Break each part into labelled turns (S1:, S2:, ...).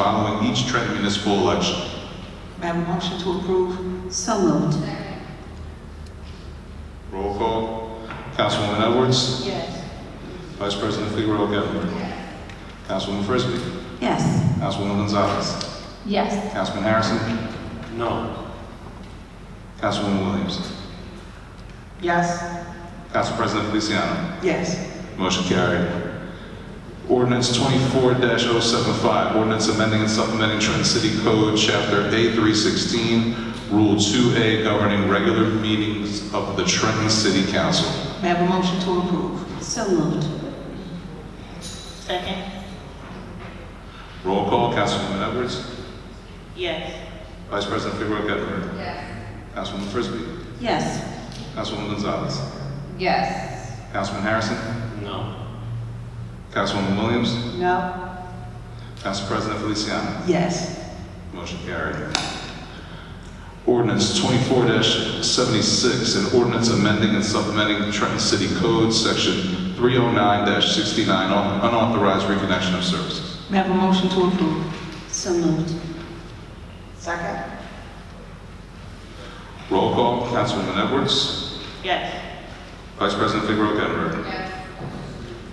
S1: following each Trenton municipal election.
S2: May I have a motion to approve?
S3: So moved.
S1: Roll call. Councilwoman Edwards.
S4: Yes.
S1: Vice President Figueroa Gettner. Councilwoman Frisbee.
S3: Yes.
S1: Councilwoman Gonzalez.
S4: Yes.
S1: Councilman Harrison.
S5: No.
S1: Councilwoman Williams.
S2: Yes.
S1: Council President Feliciano.
S2: Yes.
S1: Motion carried. Ordinance twenty-four 75 ordinance amending and supplementing Trenton City Code, Chapter A three sixteen, Rule two A governing regular meetings of the Trenton City Council.
S2: May I have a motion to approve?
S3: So moved.
S6: Second,
S1: Roll call, Councilwoman Edwards.
S6: yes.
S1: Vice President Figueroa Gettner. Yes. Councilwoman Frisbee.
S3: Yes.
S1: Councilwoman Gonzalez.
S4: Yes.
S1: Councilman Harrison.
S5: No.
S1: Councilwoman Williams.
S2: No.
S1: Council President Feliciano.
S2: Yes.
S1: Motion carried. Ordinance twenty-four seventy-six, an ordinance amending and supplementing Trenton City Code, section three oh nine sixty-nine, un- unauthorized reconnection of services.
S2: May I have a motion to approve?
S3: So moved.
S2: Second.
S1: Roll call, Councilwoman Edwards.
S6: Yes.
S1: Vice President Figueroa Gettner.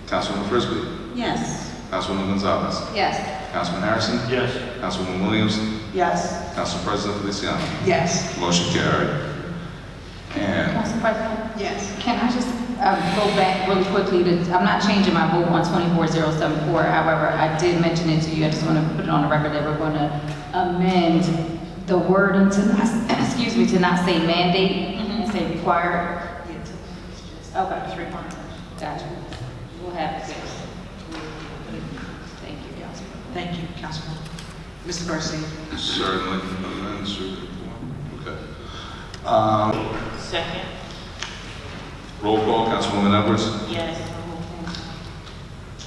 S1: Councilwoman Frisbee.
S3: Yes.
S1: Councilwoman Gonzalez.
S4: Yes.
S1: Councilman Harrison.
S5: Yes.
S1: Councilwoman Williams.
S2: Yes.
S1: Council President Feliciano.
S2: Yes.
S1: Motion carried. And
S4: Council President?
S2: Yes.
S4: Can I just uh, go back really quickly to, I'm not changing my vote on 24074. However, I did mention it to you. I just want to put it on the record that we're going to amend the wording to, not- excuse me, to not say mandate and say required. Okay. It's required. Gotcha. We'll have it. Thank you, Council.
S2: Thank you, Councilman. Mr. Garcia.
S1: certainly, amends your report. okay.
S6: Second,
S1: Roll call, Councilwoman Edwards.
S6: yes.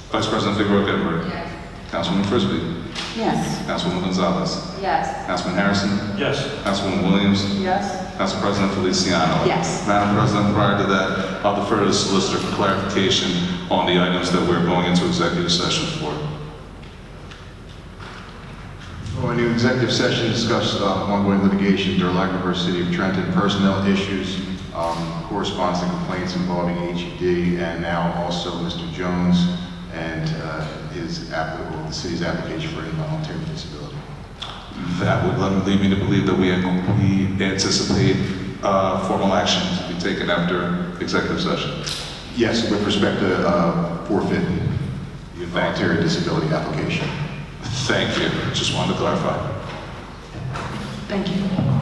S1: Vice President Figueroa Gettner. Councilwoman Frisbee.
S3: Yes.
S1: Councilwoman Gonzalez.
S4: Yes.
S1: Councilman Harrison.
S5: Yes.
S1: Councilwoman Williams.
S2: Yes.
S1: Council President Feliciano.
S2: Yes.
S1: Madam President, prior to that, I'll defer to the solicitor for clarification on the items that we're going into executive session for.
S7: Going into Oh, executive session, to discuss uh, ongoing litigation, Durlac versus City of Trenton, personnel issues, um, correspondence and complaints involving HED, and now also Mr. Jones and uh, his, app- the city's application for involuntary disability.
S1: That would let- lead me to believe that we we anticipate uh, formal action to be taken after executive session.
S7: Yes, with respect to uh, forfeiting the involuntary disability application.
S1: Thank you. Just wanted to clarify.
S2: Thank you.